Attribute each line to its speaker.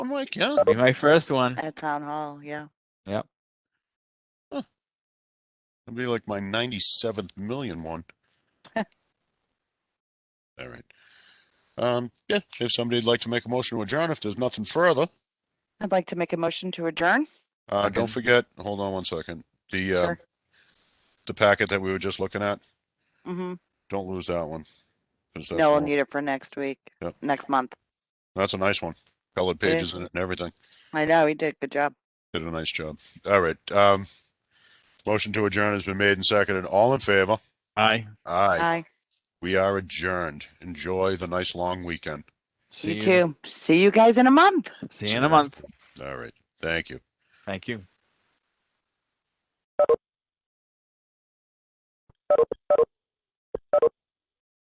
Speaker 1: like, yeah.
Speaker 2: Be my first one.
Speaker 3: At town hall, yeah.
Speaker 1: It'll be like my ninety-seventh million one. All right. Um, yeah, if somebody'd like to make a motion to adjourn, if there's nothing further,
Speaker 3: I'd like to make a motion to adjourn.
Speaker 1: uh, don't
Speaker 2: Okay.
Speaker 1: forget, hold on one second, the, uh,
Speaker 3: Sure.
Speaker 1: the packet that we were just looking at,
Speaker 3: hmm
Speaker 1: don't lose that one. 'cause that's
Speaker 3: No,
Speaker 1: the
Speaker 3: we'll
Speaker 1: one-
Speaker 3: need it for next week,
Speaker 1: Yep.
Speaker 3: next month.
Speaker 1: That's a nice one. Colored
Speaker 3: It is.
Speaker 1: pages in it and everything.
Speaker 3: I know, he did. Good job.
Speaker 1: Did a nice job. All right. Um, motion to adjourn has been made and seconded. All in favor?
Speaker 2: Aye.
Speaker 1: Aye.
Speaker 3: Bye.
Speaker 1: We are adjourned. Enjoy the nice long weekend.
Speaker 2: See
Speaker 3: You too. See you guys in a month.
Speaker 2: See you in a month.
Speaker 1: All right. Thank you.
Speaker 2: Thank you.